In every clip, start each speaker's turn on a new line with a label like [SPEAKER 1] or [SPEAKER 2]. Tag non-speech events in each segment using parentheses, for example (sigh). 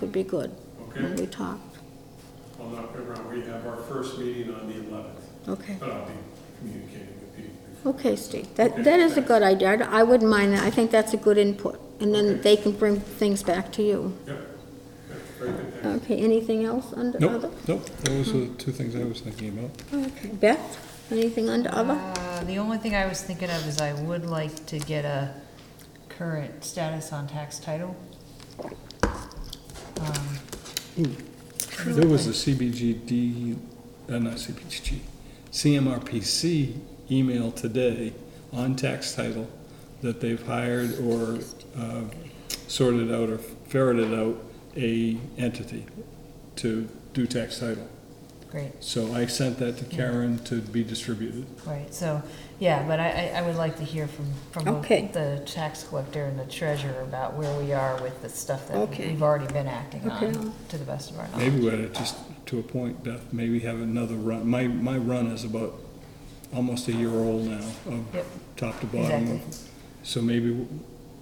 [SPEAKER 1] would be good. when
[SPEAKER 2] Okay.
[SPEAKER 1] We talked.
[SPEAKER 2] I'll knock it around. We have our first meeting on the 11th,
[SPEAKER 1] Okay.
[SPEAKER 2] but I'll be communicating with Pete before.
[SPEAKER 1] Okay, Steve, that,
[SPEAKER 2] Okay,
[SPEAKER 1] that is a
[SPEAKER 2] thanks.
[SPEAKER 1] good idea. I I wouldn't mind that. I think that's a good input. And then
[SPEAKER 2] Okay.
[SPEAKER 1] they can bring things back to you.
[SPEAKER 2] Yep, Yep. very good. Thank you.
[SPEAKER 1] Okay, anything else under other?
[SPEAKER 3] Nope, nope, those are the two things I was thinking about.
[SPEAKER 1] Okay, Beth, anything under other?
[SPEAKER 4] Uh, The only thing I was thinking of is I would like to get a current status on tax title. Um,
[SPEAKER 3] There was a CBGD, uh, not CBGG, CMRPC email today on tax title that they've hired or uh, sorted out or ferreted out a entity to do tax title.
[SPEAKER 4] Great,
[SPEAKER 3] So I sent that to Karen to be distributed.
[SPEAKER 4] right, so, yeah, but I, I- I would like to hear from, from both
[SPEAKER 1] Okay.
[SPEAKER 4] the tax collector and the treasurer about where we are with the stuff that
[SPEAKER 1] Okay.
[SPEAKER 4] we've already been acting
[SPEAKER 1] Okay.
[SPEAKER 4] on, to the best of our knowledge.
[SPEAKER 3] Maybe we ought to just, to a point, Beth, maybe have another run. My, my run is about almost a year old now, of
[SPEAKER 4] Yep.
[SPEAKER 3] top to bottom.
[SPEAKER 4] Exactly.
[SPEAKER 3] So maybe, w-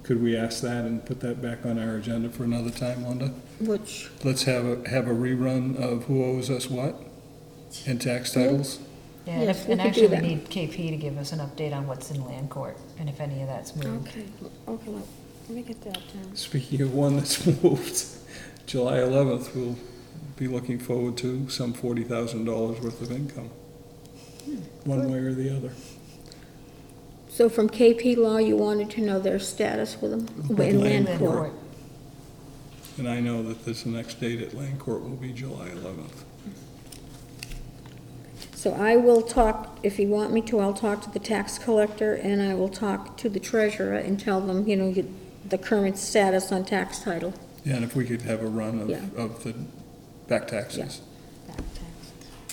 [SPEAKER 3] could we ask that and put that back on our agenda for another time, Linda?
[SPEAKER 1] Which,
[SPEAKER 3] Let's have a, have a rerun of who owes us what and tax titles.
[SPEAKER 4] Yeah, and
[SPEAKER 1] Yes,
[SPEAKER 4] if-
[SPEAKER 1] we
[SPEAKER 4] and
[SPEAKER 1] could do
[SPEAKER 4] actually, we
[SPEAKER 1] that.
[SPEAKER 4] need KP to give us an update on what's in land court, and if any of that's moved.
[SPEAKER 1] okay, okay, let let me get that down.
[SPEAKER 3] Speaking of one that's (laughs) moved, July 11th, we'll be looking forward to some $40,000 worth of income, one way or the other.
[SPEAKER 1] So from KP Law, you wanted to know their status with them,
[SPEAKER 3] With
[SPEAKER 1] in
[SPEAKER 3] Land
[SPEAKER 1] land
[SPEAKER 4] Land
[SPEAKER 1] court?
[SPEAKER 4] court,
[SPEAKER 3] And I know that this next date at Land Court will be July 11th.
[SPEAKER 1] So I will talk, if you want me to, I'll talk to the tax collector, and I will talk to the treasurer and tell them, you know, you- the current status on tax title.
[SPEAKER 3] Yeah, and if we could have a run
[SPEAKER 1] Yeah.
[SPEAKER 3] of, of the back taxes.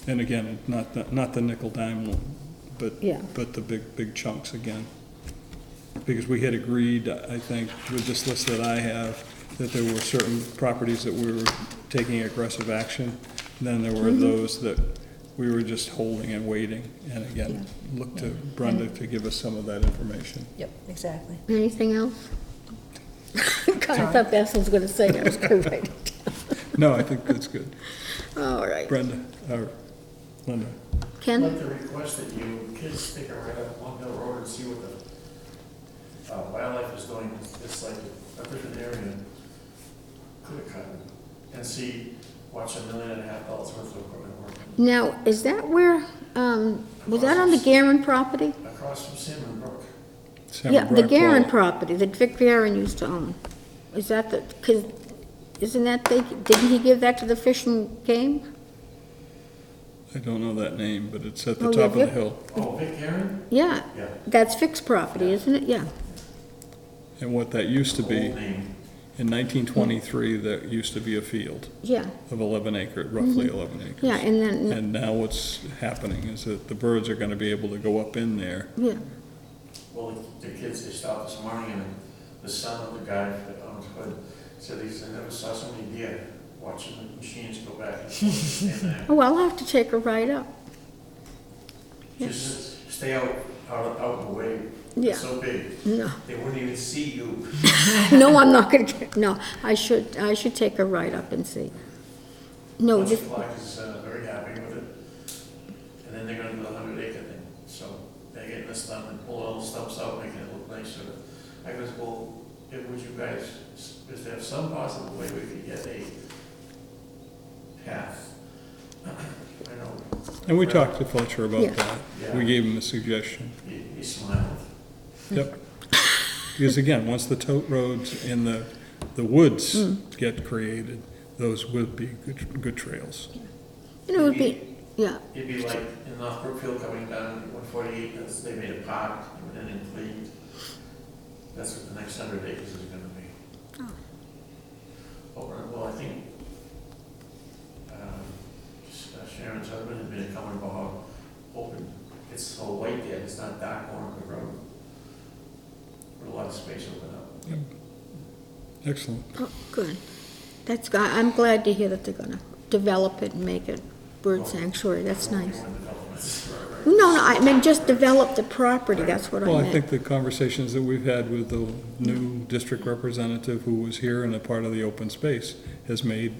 [SPEAKER 3] And again, not, the not the nickel dime one, but,
[SPEAKER 1] Yeah.
[SPEAKER 3] but the big, big chunks again. Because we had agreed, I think, with this list that I have, that there were certain properties that we were taking aggressive action. Then there
[SPEAKER 1] Mm-hmm.
[SPEAKER 3] were those that we were just holding and waiting. And again, look to Brenda to give us some of that information.
[SPEAKER 4] yep, exactly.
[SPEAKER 1] Anything else? (laughs) God, I thought Beth was gonna say that was correct.
[SPEAKER 3] No, I think that's good.
[SPEAKER 1] All right.
[SPEAKER 3] Brenda, or Linda.
[SPEAKER 5] I'd
[SPEAKER 1] Ken,
[SPEAKER 5] like to request that you kids take a ride up Long Hill Road and see what the uh, wildlife is doing. It's- It's like a different area in Cliticon. And see, watch a million and a half dollars worth of equipment work
[SPEAKER 1] now, is that where, um, was that on the Garen property?
[SPEAKER 5] across from Salmon Brook.
[SPEAKER 3] Sarah
[SPEAKER 1] Yeah, the Garen
[SPEAKER 3] Brockwell.
[SPEAKER 1] property that Vic Garen used to own. Is that the, cause, isn't that, they, didn't he give that to the Fish and Game?
[SPEAKER 3] I don't know that name, but it's at the
[SPEAKER 1] Oh,
[SPEAKER 3] top of
[SPEAKER 1] yeah,
[SPEAKER 3] the hill.
[SPEAKER 5] Oh, Vic Aaron?
[SPEAKER 1] Yeah,
[SPEAKER 5] Yeah.
[SPEAKER 1] that's Vic's property, isn't it? Yeah.
[SPEAKER 3] And what that used to
[SPEAKER 5] Old
[SPEAKER 3] be,
[SPEAKER 5] name.
[SPEAKER 3] in 1923, that used to be a field
[SPEAKER 1] Yeah,
[SPEAKER 3] of 11 acre, roughly 11 acres.
[SPEAKER 1] Mm-hmm. yeah, and then,
[SPEAKER 3] And now what's happening is that the birds are going to be able to go up in there.
[SPEAKER 1] yeah,
[SPEAKER 5] Well, the- the kids, they stopped this morning and the son of the guy that owns Hood said he's I never saw so many deer watching the machines go back
[SPEAKER 3] (laughs)
[SPEAKER 5] and forth. And, uh,
[SPEAKER 1] oh, I'll have to take a ride up.
[SPEAKER 5] Just stay out, out, out of the way.
[SPEAKER 1] Yeah.
[SPEAKER 5] It's so big,
[SPEAKER 1] No,
[SPEAKER 5] they wouldn't even see you.
[SPEAKER 1] no, I'm not gonna, get- no, I should, I should take a ride up and see. No,
[SPEAKER 5] Lunch
[SPEAKER 1] this,
[SPEAKER 5] Black is uh, very happy with it. And then they're gonna do the hundred acre thing, so they're getting this done and pull all the stumps out, making it look nicer. I goes, well, if, would you guys, is there some possible way we could get a path? (clears throat) I know.
[SPEAKER 3] And we talked to Fletcher
[SPEAKER 1] Yeah.
[SPEAKER 3] about that. We
[SPEAKER 5] Yeah.
[SPEAKER 3] gave him a suggestion.
[SPEAKER 5] He, he smiled.
[SPEAKER 1] Mm.
[SPEAKER 3] Yep. Because again, once the tote roads and the, the woods
[SPEAKER 1] Mm.
[SPEAKER 3] get created, those would be good, good trails.
[SPEAKER 1] you know, it would be, yeah,
[SPEAKER 5] It'd be like in North Brookfield coming down one forty-eight, that's, they made a park, and then cleaned. That's what the next hundred acres is gonna be.
[SPEAKER 1] Oh.
[SPEAKER 5] Oh, right, well, I think, um, Sharon's husband had been coming about, open, it's so white there, it's not dark on the road. With a lot of space open up.
[SPEAKER 3] Excellent.
[SPEAKER 1] oh, good. That's, go- I'm glad to hear that they're gonna develop it and make it bird sanctuary, that's
[SPEAKER 5] Won't be
[SPEAKER 1] nice.
[SPEAKER 5] (laughs) one development. Right, right.
[SPEAKER 1] No, no, I meant just develop the property, that's what I
[SPEAKER 3] Well, I
[SPEAKER 1] meant.
[SPEAKER 3] think the conversations that we've had with the new district representative who was here and a part of the open space has made